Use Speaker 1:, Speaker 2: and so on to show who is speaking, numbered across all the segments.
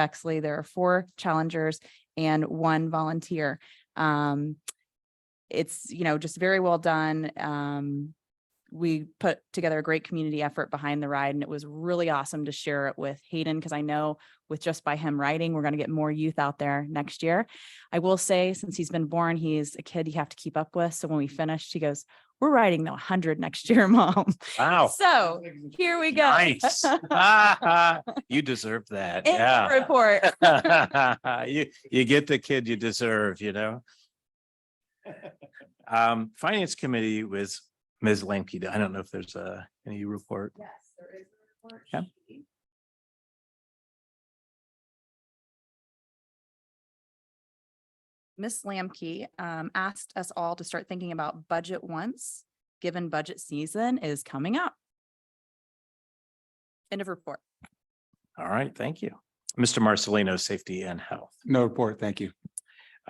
Speaker 1: Bexley. There are four challengers and one volunteer. Um, it's, you know, just very well done. Um, we put together a great community effort behind the ride and it was really awesome to share it with Hayden because I know with just by him riding, we're going to get more youth out there next year. I will say, since he's been born, he is a kid you have to keep up with. So when we finished, he goes, we're riding the 100 next year, mom.
Speaker 2: Wow.
Speaker 1: So here we go.
Speaker 2: Oh. Nice. Ah, You deserve that.
Speaker 1: End of
Speaker 2: Yeah.
Speaker 1: Report.
Speaker 2: You, you get the kid you deserve, you know? Um, Finance Committee with Ms. Lemke. I don't know if there's a, any report.
Speaker 3: Yes, there is a report
Speaker 2: Yeah.
Speaker 3: sheet.
Speaker 1: Ms. Lamke um, asked us all to start thinking about budget once, given budget season is coming up. End of report.
Speaker 2: All right, thank you. Mr. Marcelino, Safety and Health.
Speaker 4: No report, thank you.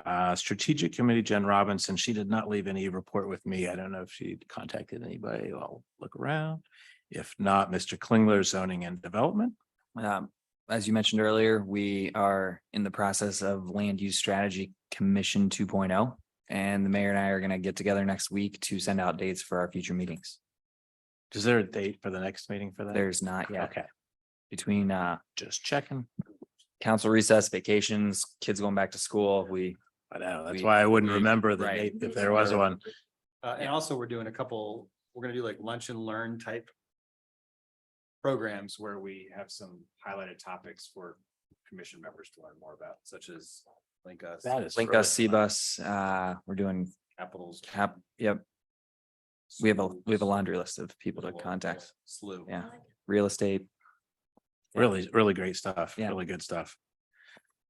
Speaker 2: Uh, Strategic Committee, Jen Robinson, she did not leave any report with me. I don't know if she contacted anybody. I'll look around. If not, Mr. Klingler, Zoning and Development.
Speaker 5: Um, as you mentioned earlier, we are in the process of Land Use Strategy Commission two oh, And the mayor and I are gonna get together next week to send out dates for our future meetings.
Speaker 2: Is there a date for the next meeting for that?
Speaker 5: There's not yet
Speaker 2: Okay,
Speaker 5: between uh
Speaker 2: just checking.
Speaker 5: council recess, vacations, kids going back to school, we.
Speaker 2: I know, uh, that's
Speaker 5: We-
Speaker 2: why I wouldn't
Speaker 5: we-
Speaker 2: remember the date
Speaker 5: right.
Speaker 2: if there was one.
Speaker 4: Uh, and also we're doing a couple, we're gonna do like lunch and learn type programs where we have some highlighted topics for commission members to learn more about, such as link us,
Speaker 2: That is.
Speaker 5: Link
Speaker 2: really
Speaker 5: us,
Speaker 2: fun.
Speaker 5: Cbus, uh, we're doing
Speaker 4: capitals.
Speaker 5: cap, yep, we have a, we have a
Speaker 4: schools,
Speaker 5: laundry list of people to
Speaker 4: little-
Speaker 5: contact,
Speaker 4: Slew.
Speaker 5: yeah, real estate.
Speaker 2: Really, really great stuff,
Speaker 5: Yeah.
Speaker 2: really good stuff.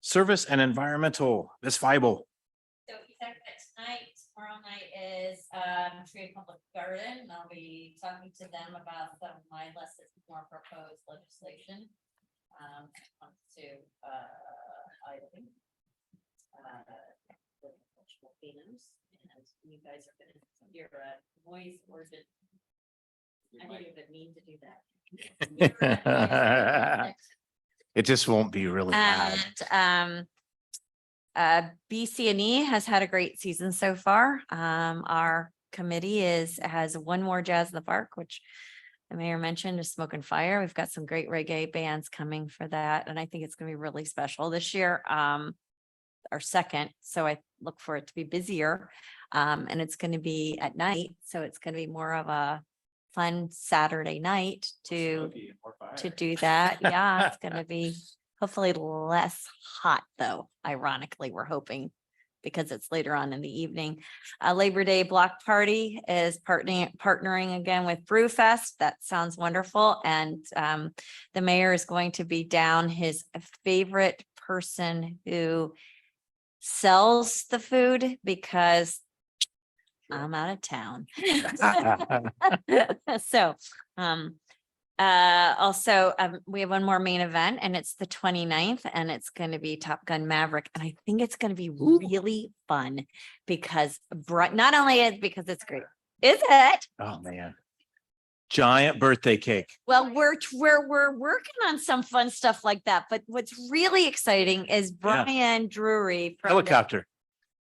Speaker 2: Service and environmental, Ms. Feibel,
Speaker 3: So we talked about tonight, tomorrow night is um Tree and Public Garden, and I'll be talking to them about some of my lessons, more proposed legislation. Um, wants to, uh, I think. uh, the cultural themes, and you guys are gonna hear a voice ordinance. I didn't even mean to do that. You're a-
Speaker 2: it just won't be really loud.
Speaker 3: and um. Uh, BCNE has had a great season so far. Um, our committee is, has one more Jazz in the Park, which. The mayor mentioned is Smoke and Fire. We've got some great reggae bands coming for that, and I think it's gonna be really special this year. Um. Our second, so I look for it to be busier. Um, and it's gonna be at night, so it's gonna be more of a. Fun Saturday night to
Speaker 4: Smoky and more
Speaker 3: to
Speaker 4: fire.
Speaker 3: do that. Yeah, it's gonna be hopefully less hot though, ironically, we're hoping. Because it's later on in the evening. Uh, Labor Day Block Party is partnering, partnering again with Brewfest. That sounds wonderful. And um, the mayor is going to be down his favorite person who sells the food because I'm out of town.
Speaker 2: Ah,
Speaker 3: Ah. So, um, uh, also, um, we have one more main event and it's the 29th and it's going to be Top Gun Maverick. And I think it's going to be really fun because Bri- not only is because it's great, is it?
Speaker 2: Oh, man. Giant birthday cake.
Speaker 3: Well, we're, t- we're, we're working on some fun stuff like that, but what's really exciting is Brian Drury from the-
Speaker 2: Helicopter.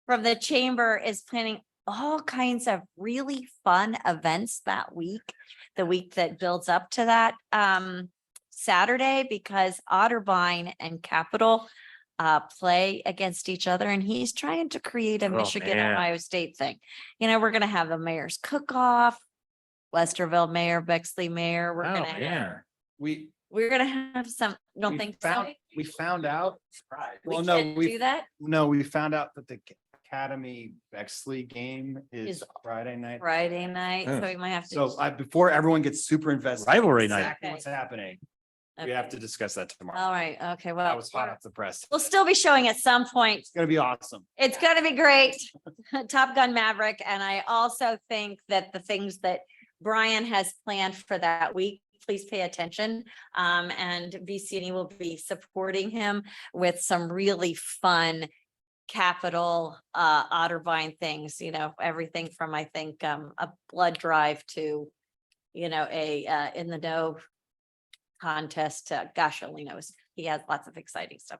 Speaker 3: from the chamber is planning all kinds of really fun events that week, the week that builds up to that um Saturday because Otterbein and Capital uh play against each other and he's trying to create a
Speaker 2: Oh,
Speaker 3: Michigan
Speaker 2: man.
Speaker 3: Ohio State thing. You know, we're gonna have the mayor's cook-off, Westerville Mayor, Bexley Mayor, we're
Speaker 2: Oh,
Speaker 3: gonna have,
Speaker 2: man.
Speaker 4: We,
Speaker 3: we're gonna have some, don't
Speaker 4: We
Speaker 3: think so.
Speaker 4: found- we found out.
Speaker 3: We
Speaker 4: Well, no,
Speaker 3: can't
Speaker 4: we-
Speaker 3: do that,
Speaker 4: No, we found out that the Academy Bexley game is
Speaker 3: Is-
Speaker 4: Friday night.
Speaker 3: Friday night,
Speaker 2: Yeah.
Speaker 3: so we might have to.
Speaker 4: So I, before everyone gets super invested.
Speaker 2: Rivalry night.
Speaker 4: exactly What's happening? We have
Speaker 3: Okay.
Speaker 4: to discuss that
Speaker 3: All
Speaker 4: tomorrow.
Speaker 3: right, okay, well.
Speaker 4: That was hot off the press.
Speaker 3: We'll still be showing at some point.
Speaker 4: It's gonna be awesome.
Speaker 3: It's gonna be great. Top Gun Maverick. And I also think that the things that Brian has planned for that week, please pay attention. Um, and VCNE will be supporting him with some really fun capital uh Otterbein things, you know, everything from, I think, um, a blood drive to, you know, a uh in the know contest. to- Gosh, only knows. He has lots of exciting stuff